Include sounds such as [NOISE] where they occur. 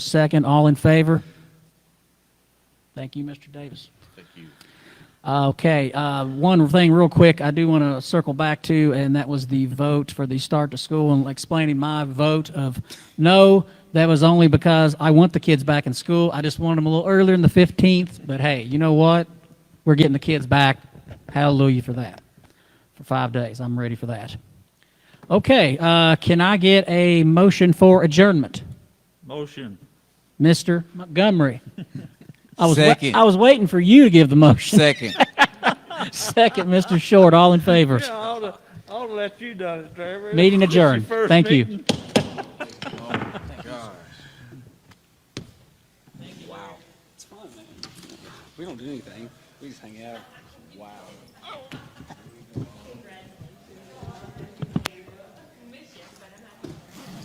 Second, all in favor? Thank you, Mr. Davis. Thank you. Uh, Okay, uh, one thing real quick I do want to circle back to, and that was the vote for the start to school and explaining my vote of no. That was only because I want the kids back in school. I just wanted them a little earlier than the 15th, but hey, you know what? We're getting the kids back. Hallelujah for that. For five days, I'm ready for that. Okay, uh, can I get a motion for adjournment? Motion. Mr. Montgomery. I was, wa- Second. I was waiting for you to give the motion. Second. [LAUGHS] Second, Mr. Short, all in favor. Yeah, I oughta, I oughta let you done it, Trevor. Meeting This is adjourned. your first Thank you. meeting. Wow. It's fun, man. We don't do anything. We just hang out. Wow.